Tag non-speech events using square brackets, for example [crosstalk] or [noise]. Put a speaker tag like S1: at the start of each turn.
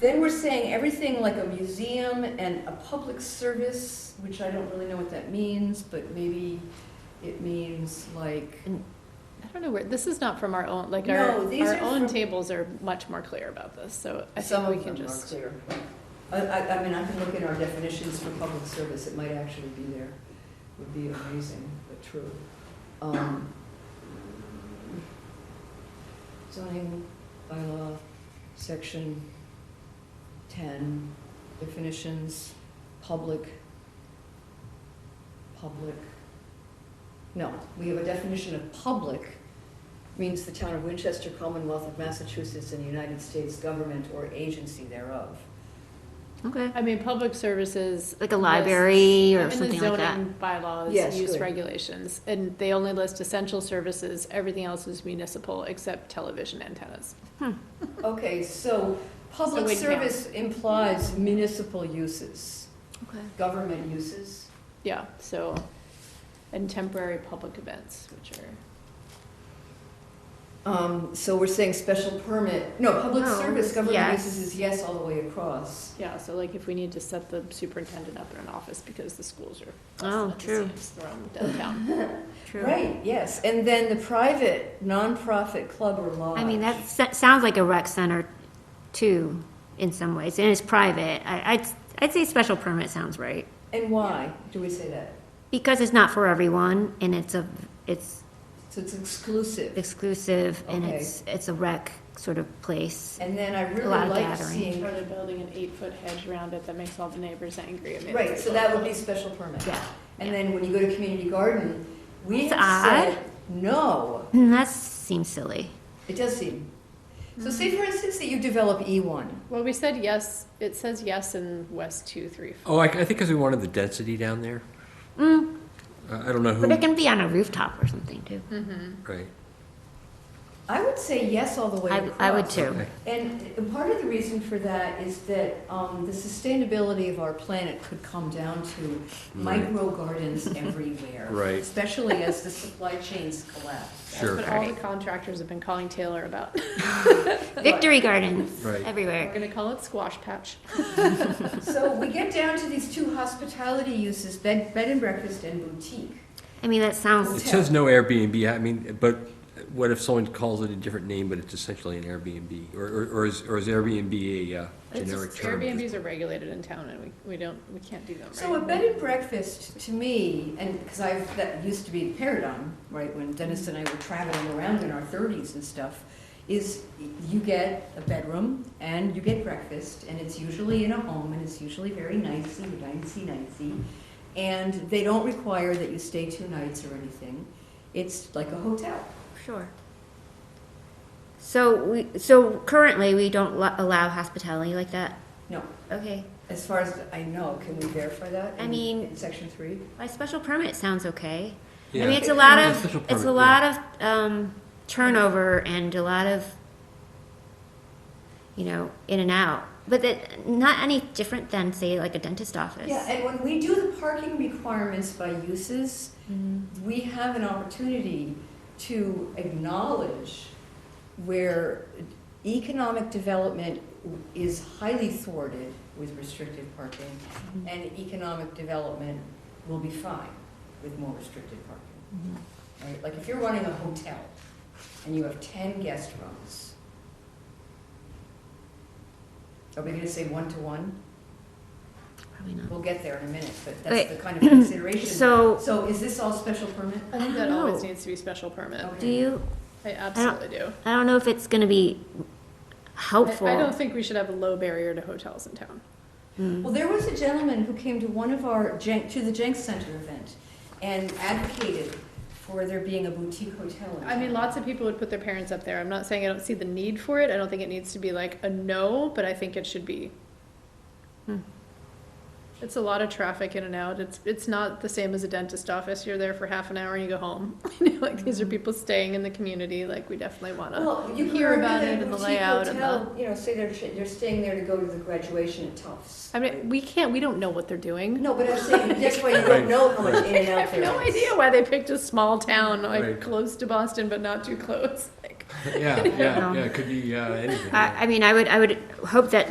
S1: Then we're saying everything like a museum and a public service, which I don't really know what that means, but maybe it means like,
S2: I don't know where, this is not from our own, like
S1: No,
S2: our,
S1: these
S2: our
S1: are
S2: own
S1: from-
S2: tables are much more clear about this, so I
S1: some
S2: think we
S1: of
S2: can
S1: them are
S2: just.
S1: clear. I, I, I mean, I can look at our definitions for public service, it might actually be there, would be amazing, but true. Um, Zoning bylaw, section ten, definitions, public, public. No, we have a definition of public, means the town of Winchester, Commonwealth of Massachusetts, and the United States government or agency thereof.
S3: Okay.
S2: I mean, public services.
S3: Like a
S2: list-
S3: library or
S2: in the
S3: something like that.
S2: zoning Bylaws,
S1: Yes,
S2: use
S1: good.
S2: regulations, and they only list essential services, everything else is municipal except television antennas.
S1: Okay, so public
S2: wait, no.
S1: service implies municipal uses,
S3: Okay.
S1: government uses.
S2: Yeah, so, and temporary public events, which are.
S1: Um, so we're saying special permit, no, public
S3: No,
S1: service, government
S3: yes.
S1: uses is yes all the way across.
S2: Yeah, so like if we need to set the superintendent up in an office because the schools are.
S3: Oh, true.
S2: Thrown downtown.
S3: True.
S1: Right, yes, and then the private nonprofit club or lodge.
S3: I mean, that s- sounds like a rec center too, in some ways, and it's private. I, I'd, I'd say special permit sounds right.
S1: And why do we say that?
S3: Because it's not for everyone and it's a, it's
S1: So it's exclusive.
S3: exclusive and
S1: Okay.
S3: it's, it's a rec sort of place.
S1: And then I
S3: lot
S1: really
S3: of
S1: like
S3: gathering.
S1: seeing,
S2: Or they're building an eight-foot hedge around it that makes all the neighbors angry. I mean,
S1: right,
S2: it's
S1: so
S2: like-
S1: that would be special permit.
S3: Yeah.
S1: And then when you go to community garden, we
S3: It's
S1: have said, no,
S3: And Mm, that seems silly.
S1: it does seem. So say for instance that you develop E E1.
S2: Well, we said yes, it says yes in West two, three, four.
S4: Oh, I, I think because we wanted the density down there. Uh,
S3: Mm,
S4: I I don't know who,
S3: but it can be on a rooftop or something too.
S2: Mm-hmm.
S4: right?
S1: I would say yes all the way
S3: I,
S1: across.
S3: I would too.
S4: Okay.
S1: And part of the reason for that is that um, the sustainability of our planet could come down to
S4: Right.
S1: micro gardens everywhere.
S4: [laughs] Right.
S1: Especially as the supply chains collapse.
S2: That's
S4: Sure,
S2: what all the contractors have been calling Taylor about.
S3: Victory gardens
S4: Right.
S2: We're
S3: everywhere.
S2: gonna call it squash patch.
S1: So we get down to these two hospitality uses, bed, bed and breakfast and boutique.
S3: I mean, that
S4: It
S3: sounds,
S4: says no Airbnb, I mean, but what if someone calls it a different name, but it's essentially an Airbnb? Or, or or is, or is Airbnb a uh,
S2: It's just
S4: generic term?
S2: Airbnbs are regulated in town and we, we don't, we can't do them,
S1: So a
S2: right?
S1: bed and breakfast to me, and because I that used to be the paradigm, right? When Dennis and I were traveling around in our thirties and stuff, is you get a bedroom and you get breakfast, and it's usually in a home, and it's usually very nicey, nicey, nicey, and they don't require that you stay two nights or anything. It's like a hotel.
S3: sure. So we, so currently we don't lo- allow hospitality like that?
S1: No,
S3: Okay.
S1: as far as I know, can we verify that?
S3: I
S1: in-
S3: mean-
S1: in section three.
S3: By special permit sounds okay. I
S4: Yeah.
S3: mean, it's a lot
S4: Yeah,
S3: of,
S4: special
S3: it's a
S4: permit,
S3: lot of um, turnover and a lot of, you know, in and out. But that, not any different than, say, like a dentist office.
S1: Yeah, and when we do the parking requirements by uses, we have an opportunity to acknowledge where economic development is highly thwarted with restrictive parking,
S3: Mm-hmm.
S1: and economic development will be fine with more restrictive parking. Right? Like if you're running a hotel and you have ten guest rooms, are we gonna say one-to-one?
S3: Probably not.
S1: We'll get there in a minute, but
S3: Wait.
S1: that's the kind of consideration.
S3: So-
S1: So is this all special permit?
S2: I think
S3: I
S2: that
S3: don't
S2: always
S3: know.
S2: needs to be special permit.
S1: Oh. Okay.
S3: Do you,
S2: I absolutely do.
S3: I don't know if it's going to be helpful. Hmm.
S2: I I don't think we should have a low barrier to hotels in town.
S1: Well, there was a gentleman who came to one of our, Jen- to the Jenks Center event and advocated for there being a boutique hotel. in
S2: I mean,
S1: town.
S2: lots of people would put their parents up there. I'm not saying I don't see the need for it. I don't think it needs to be like a no, but I think it should be.
S3: Hmm.
S2: It's a lot of traffic in and out. It's it's not the same as a dentist office. You're there for half an hour and you go home. [laughs] You know, like these are people staying in the community. Like we definitely want to.
S1: Well, you
S2: hear
S1: hear
S2: about
S1: about a
S2: it and the
S1: boutique
S2: layout and the-
S1: hotel, you know, say they're, sh- they're staying there to go to the graduation at Tufts.
S2: I mean, we can't. We don't know what they're doing.
S1: No, but I'm saying, that's why you
S4: Right,
S1: don't know how much in and
S2: I
S1: out
S2: have
S1: there is.
S2: [laughs] no idea why they picked a small town like
S4: Right.
S2: close to Boston, but not too close. [laughs] Like,
S4: [laughs] Yeah, yeah,
S2: [laughs]
S3: No.
S4: yeah, it could be uh, anything.
S3: I, I mean, I would, I would hope that